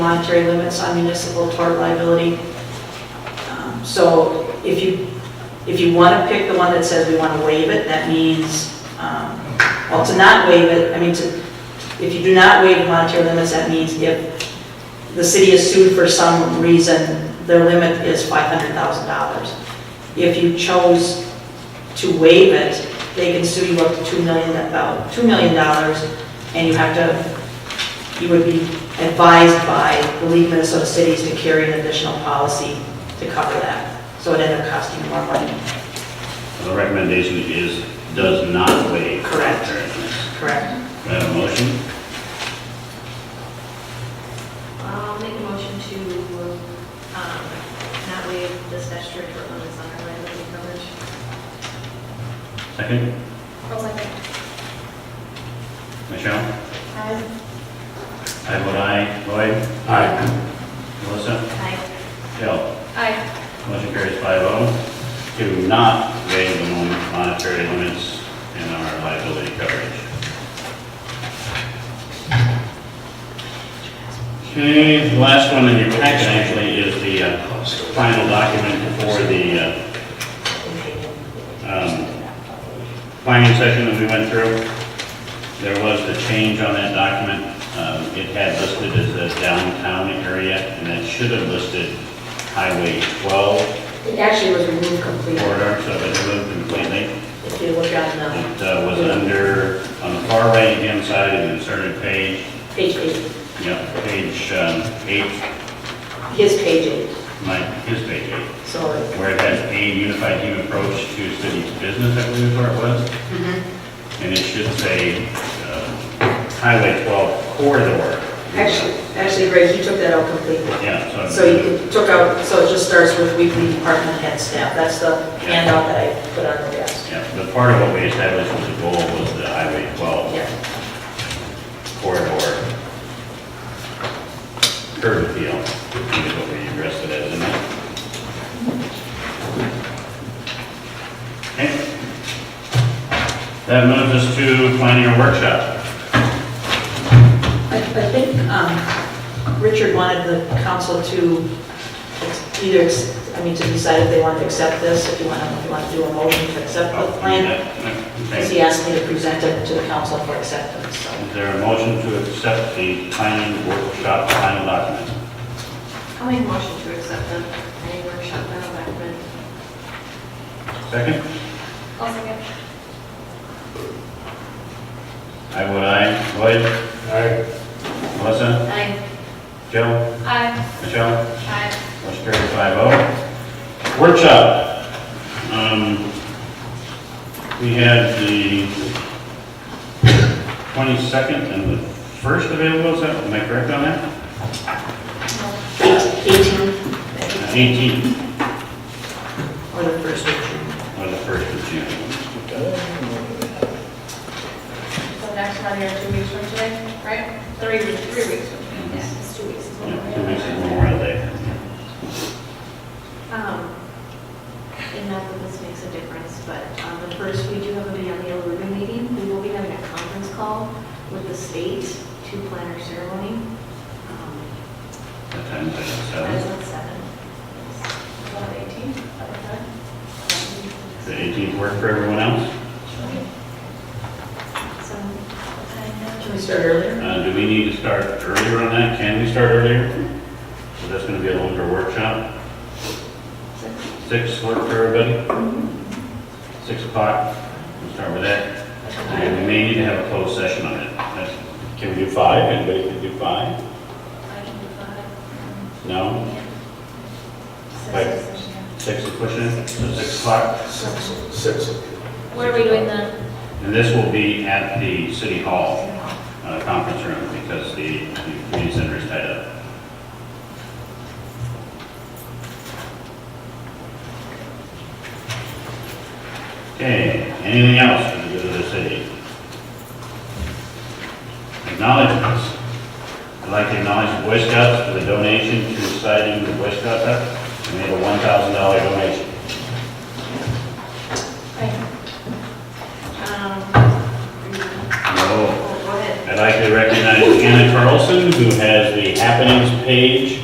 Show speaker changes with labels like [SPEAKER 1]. [SPEAKER 1] monetary limits on municipal tort liability. Um, So if you, if you want to pick the one that says we want to waive it, that means, um, well, to not waive it, I mean, to, if you do not waive monetary limits, that means if the city is sued for some reason, their limit is $500,000. If you chose to waive it, they can sue you up to $2 million, uh, $2 million, and you have to, you would be advised by the League of Minnesota Cities to carry an additional policy to cover that. So it ended up costing more money,
[SPEAKER 2] The recommendation is, does not waive.
[SPEAKER 1] Correct.
[SPEAKER 2] Fair enough.
[SPEAKER 1] correct?
[SPEAKER 2] Do I have a motion?
[SPEAKER 3] I'll make a motion to, um, not waive the statutory tort limits on our liability coverage.
[SPEAKER 2] Second,
[SPEAKER 3] I'll second.
[SPEAKER 2] Michelle? I vote aye. Lloyd?
[SPEAKER 3] Aye.
[SPEAKER 2] Melissa?
[SPEAKER 3] Aye.
[SPEAKER 2] Joe?
[SPEAKER 3] Aye.
[SPEAKER 2] Motion carries five oh. Do not waive the mon- monetary limits in our liability coverage. Okay, the last one in your packet actually is the uh, final document for the uh, um, planning session that we went through. There was the change on that document. Um, It had listed as a downtown area, and that should have listed Highway 12
[SPEAKER 1] It actually was removed completely.
[SPEAKER 2] corridor, so it moved completely.
[SPEAKER 1] If you look on um, the
[SPEAKER 2] It uh, was under, on the far right-hand side of the inserted page,
[SPEAKER 1] page eight,
[SPEAKER 2] yep, page um, eight,
[SPEAKER 1] his page eight,
[SPEAKER 2] my, his page eight,
[SPEAKER 1] so it-
[SPEAKER 2] where it has a unified team approach to city business, I believe is where it was.
[SPEAKER 1] Mm-hmm.
[SPEAKER 2] And it should say uh, Highway 12 corridor.
[SPEAKER 1] actually, actually, Greg, he took that out completely.
[SPEAKER 2] Yeah,
[SPEAKER 1] So you took out, so it just starts with weekly department head staff. That's the handout that I put on the desk.
[SPEAKER 2] Yeah, but part of what we established was the goal was the Highway 12
[SPEAKER 1] Yeah,
[SPEAKER 2] corridor curb appeal, is what we addressed it as, isn't it? Okay. That moves us to planning a workshop.
[SPEAKER 1] I I think um, Richard wanted the council to ex- either, ex- I mean, to decide if they want to accept this, if you want, to if you want to do a motion to accept the plan,
[SPEAKER 2] Okay.
[SPEAKER 1] because he asked me to present it to the council for acceptance, so.
[SPEAKER 2] Is there a motion to accept the planning workshop final document?
[SPEAKER 3] I'll make a motion to accept the, any workshop that I've recommended.
[SPEAKER 2] Second?
[SPEAKER 3] I'll second.
[SPEAKER 2] I vote aye. Lloyd? Aye. Melissa?
[SPEAKER 3] Aye.
[SPEAKER 2] Joe?
[SPEAKER 3] Aye.
[SPEAKER 2] Michelle?
[SPEAKER 3] Aye.
[SPEAKER 2] Motion carried five oh. Workshop. Um, We had the 22nd and the 1st available, is that, am I correct on that?
[SPEAKER 1] Eight- 18
[SPEAKER 2] 18th
[SPEAKER 1] or the first of June.
[SPEAKER 2] or the 1st of June.
[SPEAKER 3] So next one here, two weeks from today, right? Three weeks. Three weeks from today. Yes, it's two weeks.
[SPEAKER 2] Yeah, Two weeks is Memorial Day.
[SPEAKER 3] Um, and not that this makes a difference, but um, the first, we do have a Beyond Yellow Ribbon meeting. We will be having a conference call with the state to plan our ceremony. Um,
[SPEAKER 2] That time is
[SPEAKER 3] That's
[SPEAKER 2] at
[SPEAKER 3] at seven. About eighteen, about
[SPEAKER 2] 7. The 18th work for everyone else?
[SPEAKER 3] Seven. what time now?
[SPEAKER 1] Can we start earlier?
[SPEAKER 2] Uh, Do we need to start earlier on that? Can we start earlier? So that's going to be a longer workshop. Six work for everybody? Six o'clock, we'll start with that. And we may need to have a closed session on it. That's- Can we do five? Anybody can do five?
[SPEAKER 3] I can do five.
[SPEAKER 2] No? Five. Six is pushing it, so six o'clock.
[SPEAKER 3] Where are we doing the?
[SPEAKER 2] And this will be at the city hall uh, conference room because the the community center is tied up. Okay, anything else for the good of the city? Acknowledgements. I'd like to acknowledge the Boy Scouts for the donation to citing the Boy Scout Hut. They made a $1,000 donation.
[SPEAKER 3] Um,
[SPEAKER 2] No.
[SPEAKER 3] Go ahead. Um,
[SPEAKER 2] I'd like to recognize Anna Carlson Carlson, who has the happenings page